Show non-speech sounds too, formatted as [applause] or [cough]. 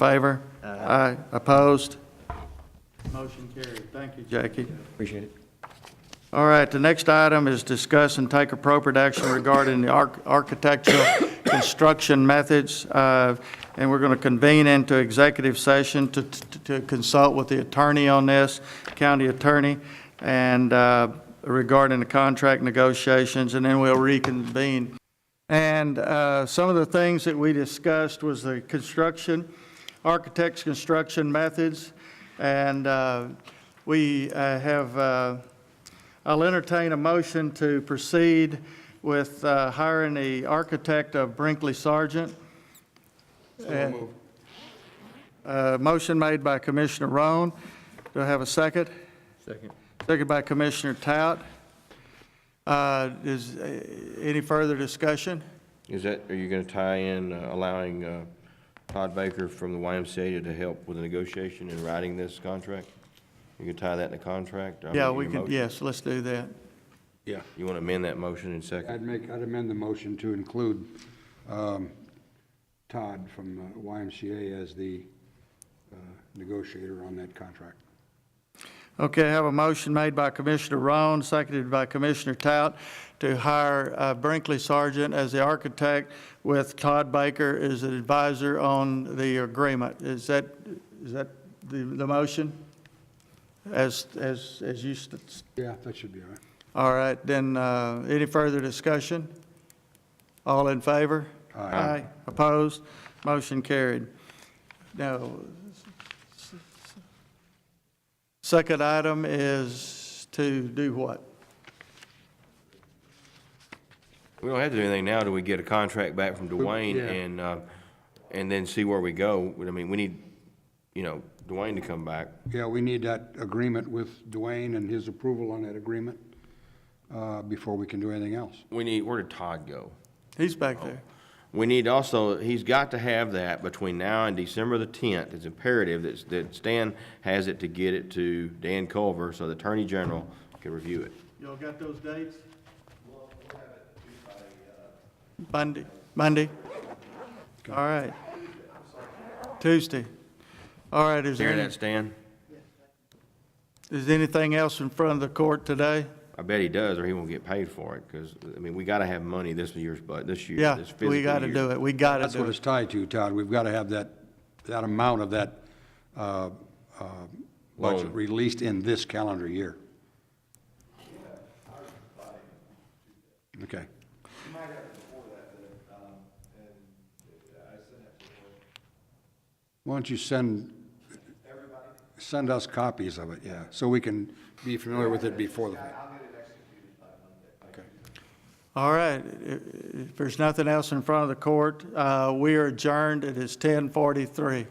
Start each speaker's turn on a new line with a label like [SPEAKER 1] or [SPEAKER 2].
[SPEAKER 1] Favor? Aye. Opposed? Motion carried. Thank you, Jackie.
[SPEAKER 2] Appreciate it.
[SPEAKER 1] All right, the next item is discuss and take appropriate action regarding the arch- architectural [coughs] construction methods, uh, and we're going to convene into executive session to- to to consult with the attorney on this, county attorney, and uh, regarding the contract negotiations, and then we'll reconvene. And uh, some of the things that we discussed was the construction, architects' construction methods, and uh, we uh, have, uh, I'll entertain a motion to proceed with uh, hiring the architect of Brinkley Sargent. Uh, Motion made by Commissioner Roan. Do I have a second?
[SPEAKER 2] Second.
[SPEAKER 1] Second by Commissioner Tout. Uh, Is uh, any further discussion?
[SPEAKER 3] Is that, are you going to tie in uh, allowing uh, Todd Baker from the YMCA to help with the negotiation and writing this contract? You can tie that in the contract? I mean,
[SPEAKER 1] Yeah,
[SPEAKER 3] your
[SPEAKER 1] we could,
[SPEAKER 3] motion.
[SPEAKER 1] yes, let's do that.
[SPEAKER 4] Yeah,
[SPEAKER 3] You want to amend that motion in second?
[SPEAKER 4] I'd make, I'd amend the motion to include um, Todd from uh, YMCA as the uh, negotiator on that contract.
[SPEAKER 1] Okay, I have a motion made by Commissioner Roan, seconded by Commissioner Tout, to hire uh, Brinkley Sargent as the architect with Todd Baker as an advisor on the agreement. Is that, is that the, the motion? As, as, as you, st-
[SPEAKER 4] Yeah, that should be all right.
[SPEAKER 1] all right, then, uh, any further discussion? All in favor?
[SPEAKER 4] Aye.
[SPEAKER 1] Opposed? Motion carried. Now, second item is to do what?
[SPEAKER 3] We don't have to do anything now till we get a contract back from Dwayne
[SPEAKER 4] yeah.
[SPEAKER 3] and, uh, and then see where we go. But, I mean, we need, you know, Dwayne to come back.
[SPEAKER 4] Yeah, we need that agreement with Dwayne and his approval on that agreement uh, before we can do anything else.
[SPEAKER 3] We need, where did Todd go?
[SPEAKER 1] He's back there.
[SPEAKER 3] We need also, he's got to have that between now and December the tenth. It's imperative that, that Stan has it to get it to Dan Culver so the Attorney General can review it.
[SPEAKER 1] Y'all got those dates? Monday, Monday? All right. Tuesday. All right, is there,
[SPEAKER 3] Hear
[SPEAKER 1] any-
[SPEAKER 3] that, Stan?
[SPEAKER 1] is anything else in front of the court today?
[SPEAKER 3] I bet he does, or he won't get paid for it, because, I mean, we gotta have money this year's, but, this year,
[SPEAKER 1] Yeah,
[SPEAKER 3] this fiscal
[SPEAKER 1] we got to
[SPEAKER 3] year.
[SPEAKER 1] do it. We got to
[SPEAKER 4] That's
[SPEAKER 1] do
[SPEAKER 4] what
[SPEAKER 1] it.
[SPEAKER 4] it's tied to, Todd. We've got to have that, that amount of that uh, uh, budget
[SPEAKER 3] Loan.
[SPEAKER 4] released in this calendar year. Okay. Why don't you send, send us copies of it, yeah, so we can be familiar with it before the.
[SPEAKER 1] All right, i- i- if there's nothing else in front of the court, uh, we are adjourned. It is 10:43.